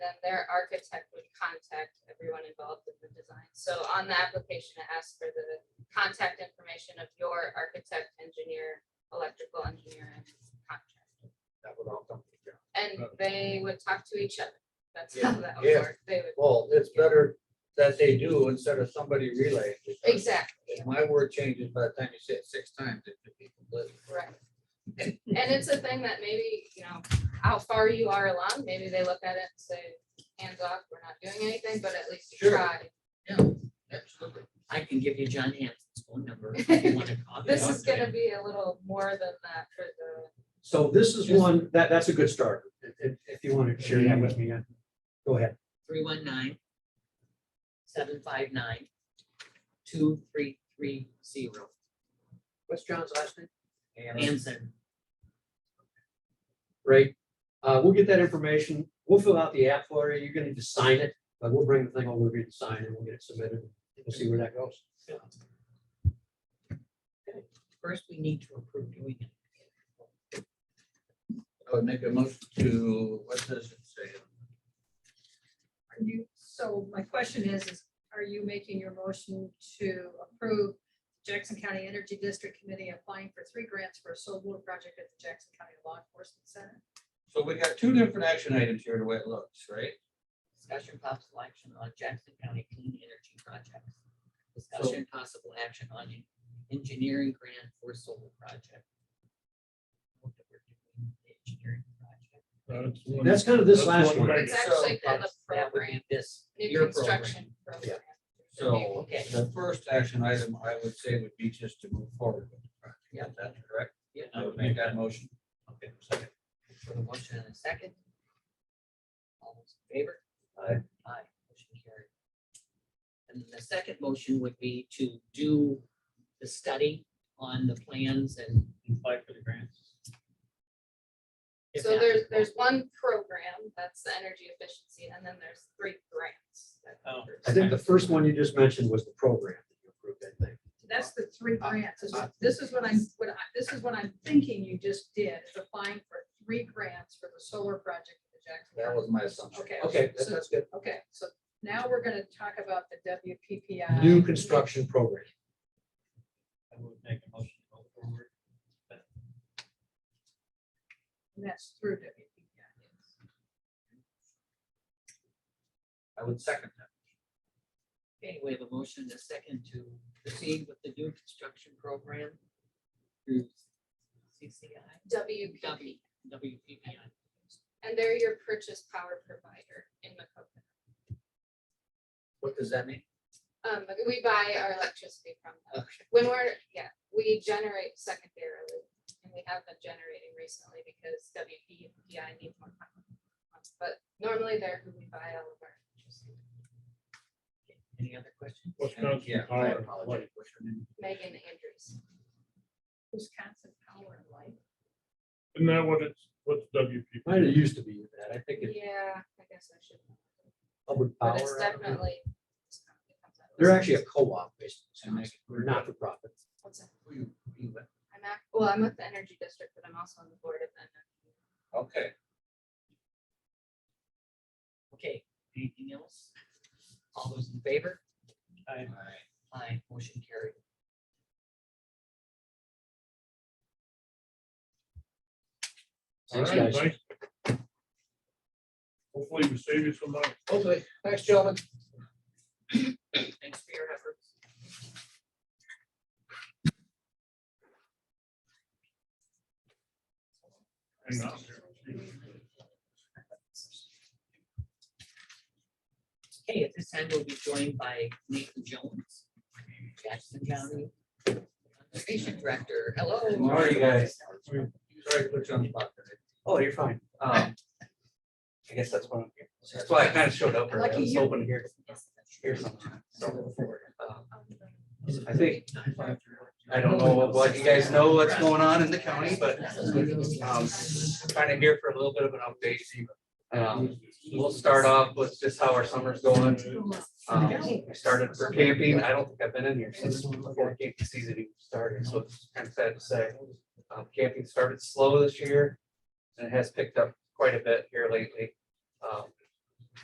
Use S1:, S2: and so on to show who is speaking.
S1: then their architect would contact everyone involved in the design. So on the application, it asks for the contact information of your architect, engineer, electrical engineer, and contractor.
S2: That would all come together.
S1: And they would talk to each other. That's how that would
S2: Yeah.
S1: work. They would,
S2: Well, it's better that they do instead of somebody relaying. because
S1: exactly.
S2: If my word changes by the time you say it six times, it could be completely.
S1: Right. And it's a thing that maybe, you know, how far you are along, maybe they look at it and say, hands off, we're not doing anything, but at least you
S2: Sure.
S1: tried.
S2: Absolutely.
S3: I can give you John Hanson's phone number if you want to call.
S1: This is gonna be a little more than that for the,
S4: So this is
S2: Yes.
S4: one, that, that's a good start, if- if, if you want to share that with me, uh, go ahead.
S3: Three one nine. Seven five nine. Two three three zero.
S2: What's John's last name? And
S3: Hanson.
S4: Great. Uh, we'll get that information. We'll fill out the app for you. You're gonna need to sign it, but we'll bring the thing over here to sign and we'll get it submitted. We'll see where that goes.
S3: First, we need to approve doing it.
S2: I would make a motion to, what does it say?
S5: Are you, so my question is, is are you making your motion to approve Jackson County Energy District Committee applying for three grants for a solar project at the Jackson County Law Enforcement Center?
S2: So we got two different action items here, the way it looks, right?
S3: Discussion possible action on Jackson County Clean Energy Project. Discussion possible action on en- engineering grant for solar project. What that we're doing, the Engineering project.
S4: That's kind of this last
S2: That's
S4: one.
S2: one.
S1: it's
S2: So
S1: actually called a
S3: That's- That would
S1: program,
S3: be this.
S1: new
S3: your
S1: construction
S4: Yeah.
S1: program.
S2: So
S3: Okay.
S2: the first action item I would say would be just to move forward. with the project.
S3: Yeah.
S2: That's correct.
S3: program.
S2: I
S3: Yeah.
S2: would make that motion.
S3: Okay, second. For the motion and a second. All those in favor?
S4: Aye.
S3: Aye, motion carried. And the second motion would be to do the study on the plans and. Apply for the grants.
S1: So there's, there's one program, that's the energy efficiency, and then there's three grants. that-
S4: I think the first one you just mentioned was the program that you approved, I think.
S5: That's the three grants. This is- This is what I'm, what I, this is what I'm thinking you just did, is applying for three grants for the solar project at the Jackson.
S2: That was my assumption.
S5: Okay.
S4: Okay,
S5: So-
S4: that's good.
S5: Okay, so now we're gonna talk about the WPPI.
S4: New construction program.
S6: I would make a motion to go forward.
S5: And that's through WPPI.
S2: I would second that.
S3: Okay, we have a motion and a second to proceed with the new construction program. Through CCI,
S1: WPP,
S3: W, WPPI.
S1: and they're your purchase power provider in Macokota.
S2: What does that mean?
S1: Um, but we buy our electricity from them.
S2: Okay.
S1: When we're, yeah, we generate secondarily, and we have been generating recently because WPPI needs more power. But normally they're who we buy all of our electricity.
S3: Any other questions?
S2: Yeah, I apologize. What's your name?
S1: Megan Andrews.
S5: Wisconsin Power and Light.
S6: Isn't that what it's, what's WP?
S4: Might have used to be that. I think it's
S1: Yeah, I guess I should. know.
S4: public power.
S1: But it's
S4: I don't know.
S1: definitely.
S4: They're actually a co-op based,
S2: And they-
S4: they're not for profit.
S1: What's that?
S2: Who you- who you with?
S1: I'm at, well, I'm with the energy district, but I'm also on the board of the. energy.
S2: Okay,
S3: Okay, anything else? All those in favor?
S2: all right.
S3: Aye, motion carried.
S4: Thanks,
S6: All right,
S4: guys.
S6: thanks. Hopefully we save you some money.
S2: hopefully, thanks, gentlemen.
S3: Thanks for your efforts.
S6: Hang on here.
S3: Okay, at this time, we'll be joined by Nathan Jones, Jackson County Conservation Director. Hello.
S2: How are you guys? Sorry to put you on the spot today.
S4: Oh, you're fine.
S7: Um, I guess that's what I'm here. That's why I kind of showed up early. I
S5: Lucky
S7: was
S5: you.
S7: hoping to hear, hear something. So, um, I think, I don't know what you guys know what's going on in the county, but um, trying to hear for a little bit of an update. Um, We'll start off with just how our summer's going. Um, I started for camping. I don't think I've been in here since before camping season even started, so it's kind of sad to say. Um, Camping started slow this year and it has picked up quite a bit here lately. Um,